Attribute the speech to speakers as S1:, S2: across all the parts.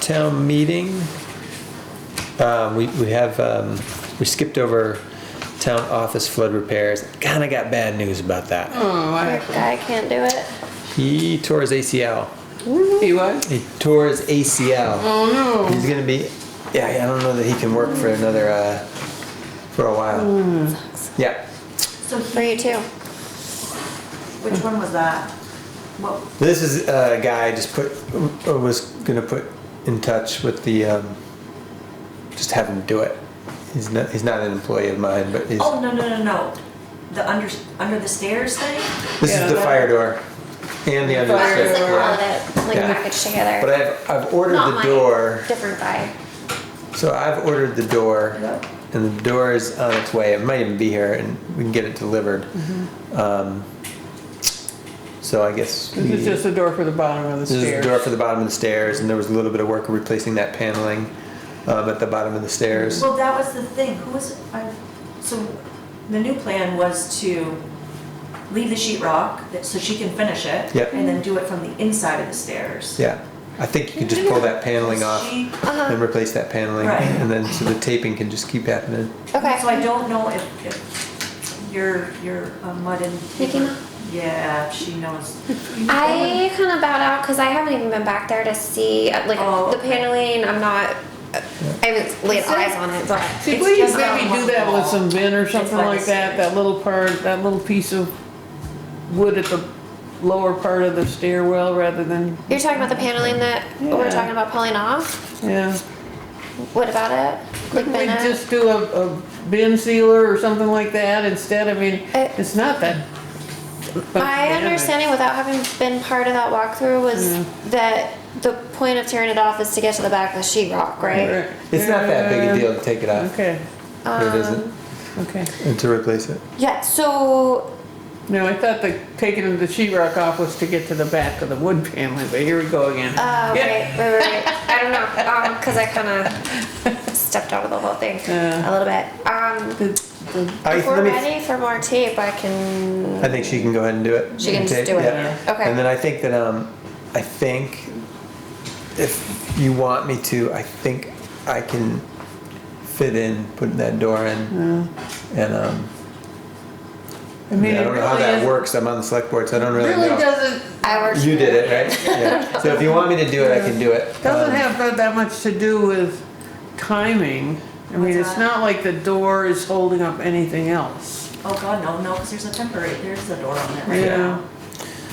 S1: town meeting. Um, we, we have, um, we skipped over town office flood repairs. Kinda got bad news about that.
S2: Oh, what happened?
S3: Guy can't do it.
S1: He tore his ACL.
S2: He what?
S1: He tore his ACL.
S2: Oh
S1: He's gonna be, yeah, I don't know that he can work for another, uh, for a while.
S2: Hmm.
S1: Yeah.
S4: So
S3: For
S4: he,
S3: you too.
S4: which one was that? What,
S1: This is a guy just put uh, was gonna put in touch with the um, just have him do it. He's not he's not an employee of mine, but he's,
S4: oh, no, no, no, no. The under, under the stairs thing?
S1: this
S2: Yeah,
S1: is the
S2: that-
S1: fire door and the under the
S2: Fire
S3: Ours
S1: stairs
S3: like
S2: door.
S1: door.
S3: all of it, like
S1: Yeah.
S3: packaged
S1: But
S3: together.
S1: I've I've ordered
S3: Not
S1: the
S3: mine.
S1: door,
S3: Different guy.
S1: so I've ordered the door,
S4: Yeah.
S1: and the door is on its way. It might even be here, and we can get it delivered. Um, so I guess
S2: Mm-hmm. This is
S1: we-
S2: just the door for the bottom of the
S1: Hmm. This is the
S2: stairs.
S1: door for the bottom of the stairs, and there was a little bit of work replacing that paneling um, at the bottom of the stairs.
S4: Well, that was the thing, who was, I, so the new plan was to leave the sheet rock, that- so she can finish it.
S1: Yep.
S4: And then do it from the inside of the stairs.
S1: Yeah, I think you could just pull that paneling off
S4: She-
S1: and
S2: uh-huh.
S1: replace that paneling,
S4: Right.
S1: and then so the taping can just keep happening.
S4: So I
S3: Okay.
S4: don't know if, if your, your uh, mud and.
S3: Nikki Ma?
S4: Yeah, she knows.
S3: I kind of bowed out because I haven't even been back there to see uh, like
S4: Oh,
S3: the
S4: okay.
S3: paneling. I'm not. I haven't laid eyes on it, but
S2: See,
S4: It's
S2: we
S4: just
S2: maybe
S4: not
S2: do that with some vent or
S4: It's
S2: something
S4: like a
S2: like that,
S4: stairs.
S2: that little part, that little piece of wood at the lower part of the stairwell rather than,
S3: you're talking about the paneling that we
S2: Yeah.
S3: we're talking about pulling off.
S2: yeah.
S3: What about it? Like
S2: Couldn't we
S3: Bennett?
S2: just do a, a bin sealer or something like that instead? I mean,
S3: Uh,
S2: it's not that.
S3: My understanding, without having been part of that walkthrough, was that the point of tearing it off is to get to the back of the sheetrock, right?
S1: It's not that big a deal to take it off.
S2: Uh, Okay,
S1: It isn't,
S2: okay.
S1: and to replace it.
S3: Yeah. So
S2: No, I thought the, taking the sheetrock off was to get to the back of the wood paneling, but here we go again.
S3: Uh,
S2: Yeah.
S3: right, right, right. I don't know, because I kind of stepped out of the whole thing a
S2: Yeah.
S3: little bit. Um,
S2: The- the-
S1: I,
S3: if we're
S1: let me,
S3: ready for more tape, I can.
S1: I think she can go ahead and do it.
S3: She can just
S1: tape,
S3: do it,
S1: yeah.
S3: okay.
S1: And then I think that um, I think if you want me to, I think I can fit in putting that door in, and um.
S2: I mean,
S1: I
S2: it
S1: don't know how
S2: really
S1: that
S2: is,
S1: works. I'm on the select board, so I don't really
S2: really
S1: know.
S2: doesn't,
S3: I worked.
S1: You did it, right? Yeah. So if you want me to do it, I can do it.
S2: doesn't
S1: Um,
S2: have that- that much to do with timing. I mean,
S4: What's
S2: it's
S4: that?
S2: not like the door is holding up anything else.
S4: Oh, God, no, no, because there's a temporary, there's a door on it right
S2: Yeah.
S4: now.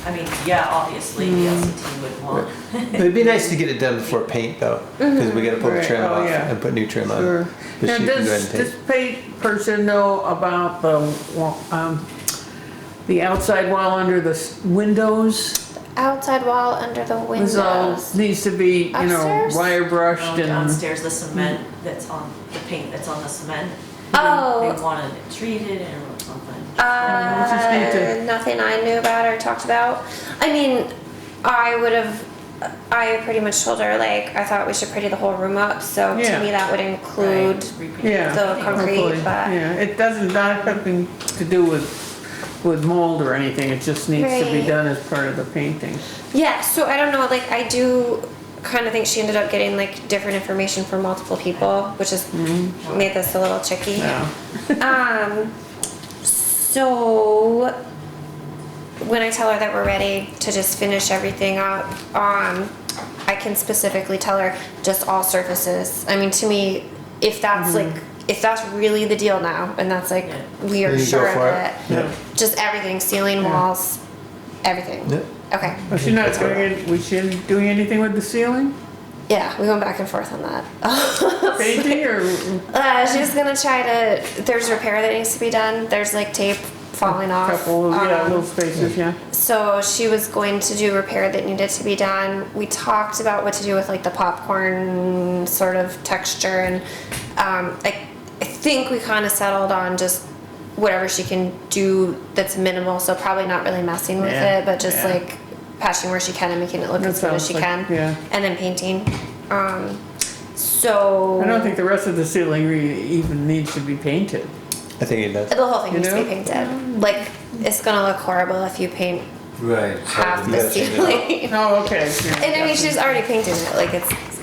S4: I mean, yeah, obviously, the LCT would want.
S1: Um, It'd be nice to get it done before paint though, because we gotta pull the
S2: Right,
S1: trim
S2: oh,
S1: off
S2: yeah.
S1: and put new trim
S2: Sure.
S1: on. But
S2: Now,
S1: she can go ahead
S2: does
S1: and paint.
S2: this paid person know about the, wa- um, the outside wall under the s- windows?
S3: Outside wall under the
S2: This all
S3: windows.
S2: needs to be, you know,
S3: Upstairs? Oh,
S2: wire brushed
S4: Down-
S2: and,
S4: Downstairs, the cement that's on, the paint that's on the cement. They
S3: Oh,
S4: wanted it treated and something.
S2: Let's just need
S3: uh,
S2: to-
S3: nothing I knew about or talked about. I mean, I would have. I pretty much told her like I thought we should pretty the whole room up. So
S2: Yeah.
S3: to me that would include.
S2: yeah.
S3: The concrete,
S2: hopefully,
S3: but-
S2: Yeah, it doesn't, not something to do with, with mold or anything, it just needs to be
S3: Right.
S2: done as part of the painting.
S3: Yeah, so I don't know, like I do kind of think she ended up getting like different information from multiple people, which has made this a little tricky.
S2: Yeah.
S3: Um so when I tell her that we're ready to just finish everything up, um I can specifically tell her just all surfaces. I mean to me, if that's like if that's really the deal now and that's like
S4: Yeah.
S3: we are
S1: Then you go
S3: sure of
S1: for it.
S3: it.
S1: Yeah.
S3: Just everything, ceiling, walls, everything.
S1: Yeah.
S3: Okay.
S2: But she's not doing, it- we shouldn't doing anything with the ceiling,
S3: Yeah, we went back and forth on that.
S2: painting or,
S3: uh, she's gonna try to. There's repair that needs to be done. There's like tape falling off.
S2: couple, yeah,
S3: Um,
S2: little spaces, yeah.
S3: so she was going to do repair that needed to be done. We talked about what to do with like the popcorn sort of texture, and um, I, I think we kind of settled on just whatever she can do that's minimal. So probably not really messing with
S2: Yeah,
S3: it, but just
S2: yeah.
S3: like patching where she can and making it look
S2: That
S3: as good as
S2: sounds
S3: she
S2: like-
S3: can,
S2: yeah.
S3: and then painting. Um, so
S2: I don't think the rest of the ceiling re- even needs to be painted.
S1: I think it does.
S3: the whole thing
S2: you
S3: needs to be
S2: know?
S3: painted. Like it's gonna look horrible if you paint
S5: Right. so
S3: half
S5: we
S3: the
S5: gotta change it up.
S3: ceiling.
S2: Oh, okay.
S3: And I mean, she's already painted it. Like it's